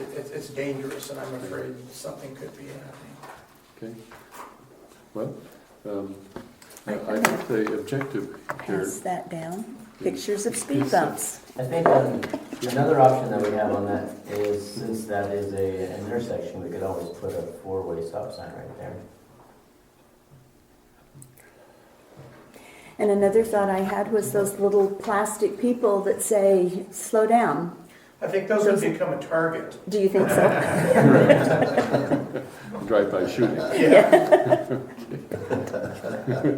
it- it's, it's dangerous, and I'm afraid something could be happening. Okay. Well, um, I I think the objective here, Pass that down. Pictures of speed bumps. I think um, another option that we have on that is, since that is a an intersection, we could always put a four-way stop sign right there. And another thought I had was those little plastic people that say, slow down. I think those would become a target. Do you think so? drive-by shooting. Yeah.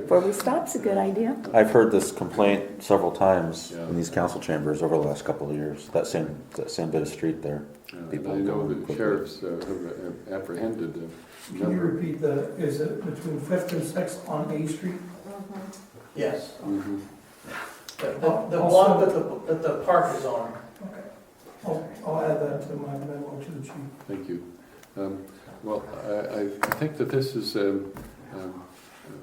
Four-way stop's a good idea. I've heard this complaint several times Yeah. in these council chambers over the last couple of years, that same, that same bit of street there. Uh, People I know going that quickly. sheriffs uh, have apprehended a Can you number. repeat the, is it between Fifth and Sixth on A Street? Yes. Mhm. The, the the one that the, that the park is on. Okay. I'll, I'll add that to my memo to the chief. Thank you. Um, Well, I, I think that this is um, um,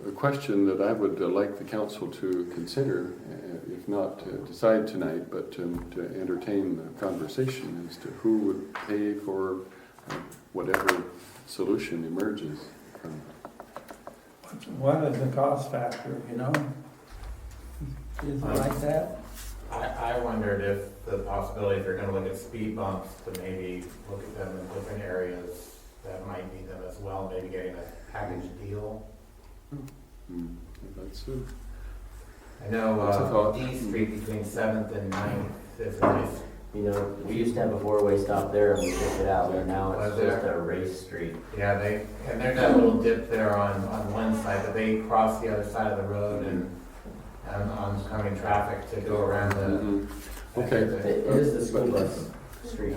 a question that I would uh, like the council to consider, uh, if not to decide tonight, but um, to entertain the conversation as to who would pay for uh, whatever solution emerges. from- What is the cost factor, you know? Is it like that? I, I wondered if the possibility, if you're gonna look at speed bumps, to maybe look at them in different areas that might need them as well, maybe getting a package deal. Hmm, That's a I know, That's a uh, thought. D Street between Seventh and Ninth is a nice, You know, we used to have a four-way stop there and we took it out, and now it's Was there? just a race street. yeah, they, and there's that little dip there on, on one side, but they cross the other side of the road and, and oncoming traffic to go around the. Mhm. Uh-huh. Okay. It is the school bus street,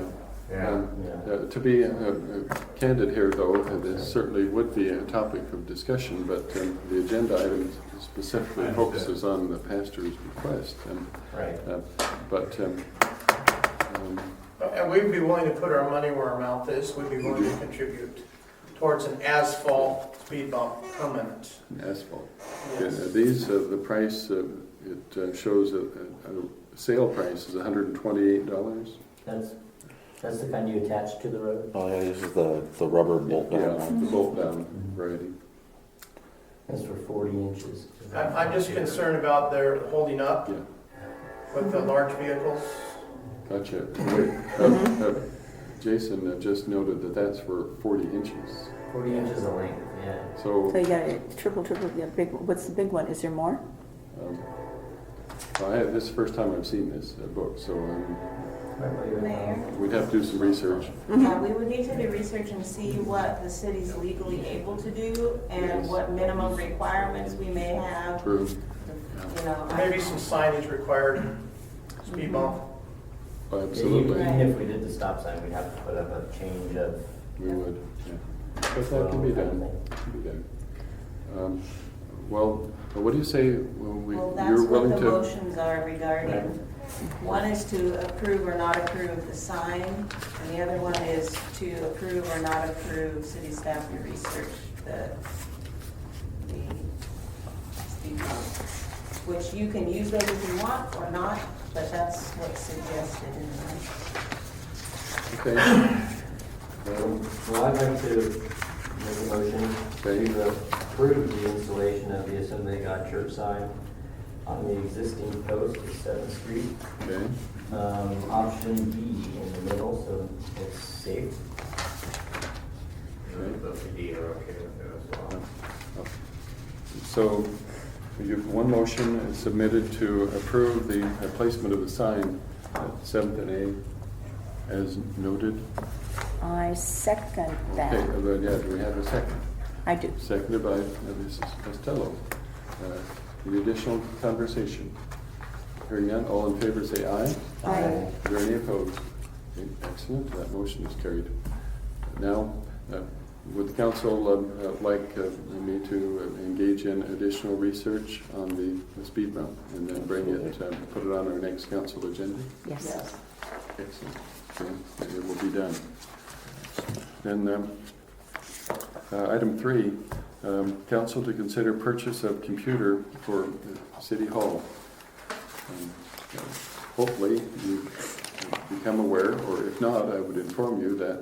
Yeah. yeah. Uh, To be uh, uh, candid here, though, uh, this certainly would be a topic of discussion, but um, the agenda item specifically focuses on the pastor's request. um, Right. uh, But, um, um, And we'd be willing to put our money where our mouth is, we'd be willing to contribute towards an asphalt speed bump permanent. asphalt. Yeah, Yes. uh, These, uh, the price, uh, it uh, shows a a- a sale price is $128. That's, that's the kind you attach to the road. Oh, yeah, this is the, the rubber bolt down Yeah, one. the bolt down variety. That's for forty inches. I'm, I'm just concerned about their holding up Yeah. with the large vehicles. Gotcha. Uh, uh, Jason uh, just noted that that's for 40 inches. Forty inches in length, yeah. So So you got a triple, triple, the big, what's the big one? Is there more? Um, I have, this is the first time I've seen this uh, book, so um, Mayor, we'd have to do some research. uh, we would need to do research and see what the city's legally able to do and Yes. what minimum requirements we may have, True. you know. I- Maybe some signage required, speed bump. Absolutely, Even if we did the stop sign, we'd have to put up a change of. we would. yeah. But that can be done. Can be done. Um, Well, what do you say, well, we- Well, that's you're what willing the to? motions are regarding. One is to approve or not approve the sign, and the other one is to approve or not approve city staff to research the, the speed bump, which you can use those if you want or not, but that's what's suggested in the Okay, Um, Well, I'd like to make a motion to approve the installation of the Assembly of God church sign on the existing post at Seventh Street. okay. Um, option B in the middle, so it's safe. Those D are okay with it as well. So you've, one motion is submitted to approve the uh, placement of the sign at Seventh and A as noted. I second Okay, that. uh, yeah, do we have a second? I do. Seconded by uh, Mrs. Costello. Uh, Any additional conversation? Hearing none, all in favor say aye. Aye. Are there any opposed? Okay, Excellent, that motion is carried. Now, uh, would the council um, uh, like uh, me to uh, engage in additional research on the- the speed bump and then bring it, um, put it on our next council agenda? Yes. Yes. Excellent. Okay, It will be done. Then, um, uh, item three, um, council to consider purchase of computer for uh, City Hall. Um, Hopefully, you become aware, or if not, I would inform you that